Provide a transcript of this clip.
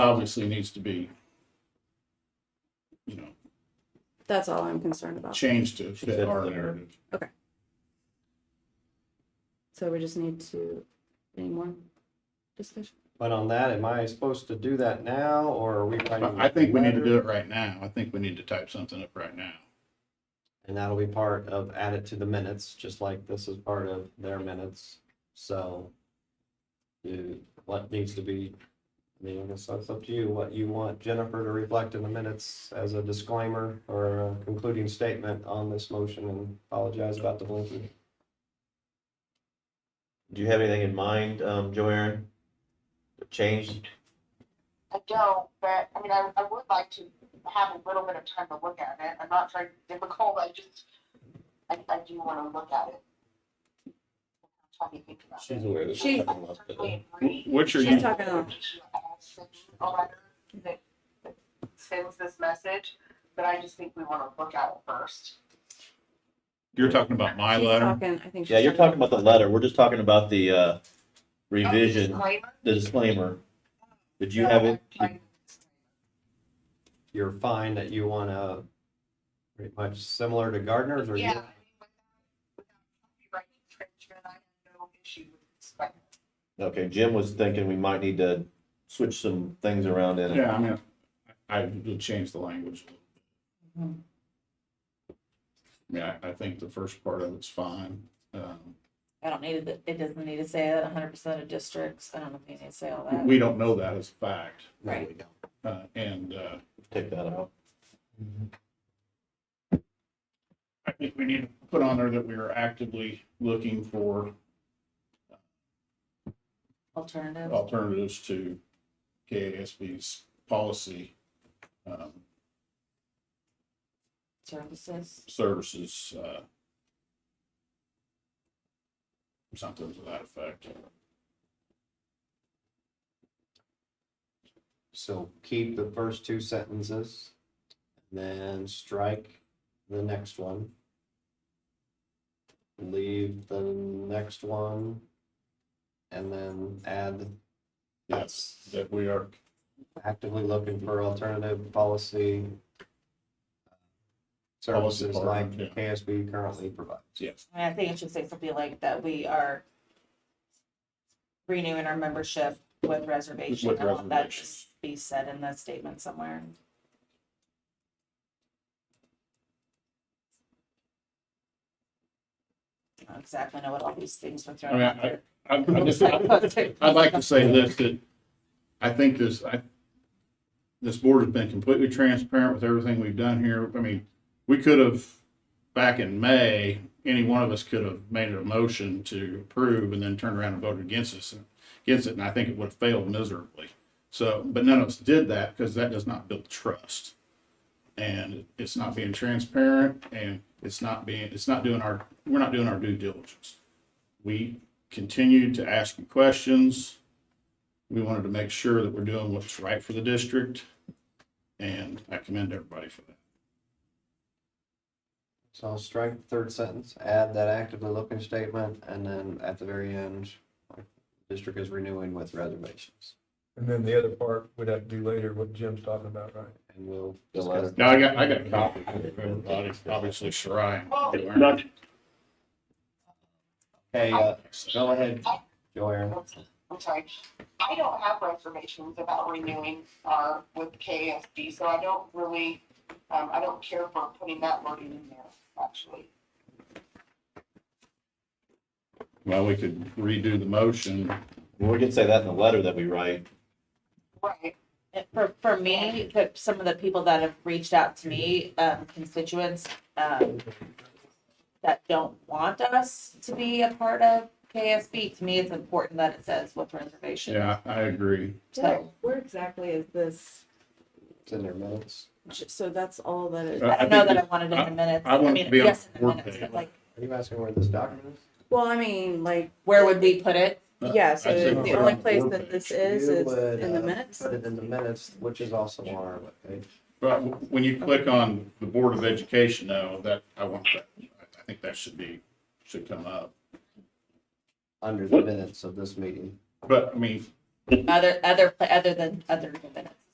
obviously needs to be, you know, That's all I'm concerned about. changed to She said fit our the- narrative. So we just need to, any more discussion? But on that, am I supposed to do that now or are we writing? I I think we need to letter? do it right now. I think we need to type something up right now. And that'll be part of added to the minutes, just like this is part of their minutes. So you, what needs to be, I mean, I guess that's up to you, what you want Jennifer to reflect in the minutes as a disclaimer or a concluding statement on this motion and apologize about the blinking. Do you have anything in mind, um, Joanne? Changed? I don't, but, I mean, I, I would like to have a little bit of time to look at it. I'm not trying to be difficult, I just, I, I do wanna look at it. Try to think about it. She's aware that. She- I certainly agree. Which are She's you, talking I on. think she should add a section That that sends this message, but I just think we wanna look at it first. you're talking about my she's letter? talking, I think. Yeah, she's you're talking about the letter. We're just talking about the, uh, revision, Disclaimer? the disclaimer. Did you have it? You're fine that you want to pretty much similar to Gardner's or Yeah. you? I mean, without- without copyright infringement, I have no issue with disclaimer. Okay, Jim was thinking we might need to switch some things around in it. Yeah, I mean, I would change the language. a Mm-hmm. little bit. I mean, I, I think the first part of it's fine. Um, I don't need it, it doesn't need to say that hundred percent of districts, I don't know if you need to say all that. We don't know that as a fact, No, we Right. don't. uh, and, uh, Take that out. I think we need to put on there that we are actively looking for Alternative. alternatives to KASB's policy, um, services. services, uh, something to that effect. So keep the first two sentences, then strike the next one. Leave the next one, and then add Yes, that we are actively looking for alternative policy uh, Policy services like partner, yeah. KSB currently provides. Yes. I mean, I think it should say something like that we are renewing our membership with reservation. With I want that to reservation. Be said in that statement somewhere. I don't exactly know what all these things were I thrown mean, out there. I, I just, I'd like to say this, that I think this, I, this board has been completely transparent with everything we've done here. I mean, we could have, back in May, any one of us could have made a motion to approve and then turned around and voted against us, against it, and I think it would have failed miserably. So, but none of us did that because that does not build trust. And it's not being transparent and it's not being, it's not doing our, we're not doing our due diligence. We continued to ask you questions. We wanted to make sure that we're doing what's right for the district. And I commend everybody for that. So I'll strike the third sentence, add that actively looking statement, and then at the very end, district is renewing with reservations. And then the other part would have to do later, what Jim's talking about, right? And we'll The discuss. letter. Now, I got, I got a copy for everybody, obviously Shirai. Not- Hey, uh, go ahead, Joanne. I'm sorry, I don't have reservations about renewing our with KSD, so I don't really, um, I don't care for putting that wording in there, actually. Well, we could redo the motion. We can say that in the letter that we write. Right, And For, for me, that some of the people that have reached out to me, um, constituents, um, that don't want us to be a part of KSB, to me, it's important that it says with reservation. Yeah, I agree. Where where exactly is this? It's in their minutes. J- So that's all that it, Uh, I I don't know think that I that- wanted it in the minutes. I want mean, to be on yes, in the board minutes, page. but, Like, Are you asking where this document is? well, I mean, like, where would we put it? yeah, so I'd say the uh, we're only on the place board that this page. is, You is would, in the uh, minutes. Put it in the minutes, which is also on our webpage. But when you click on the Board of Education though, that, I want that, I think that should be, should come up. under the minutes of this meeting. But I mean, Other, other, other than, other than minutes.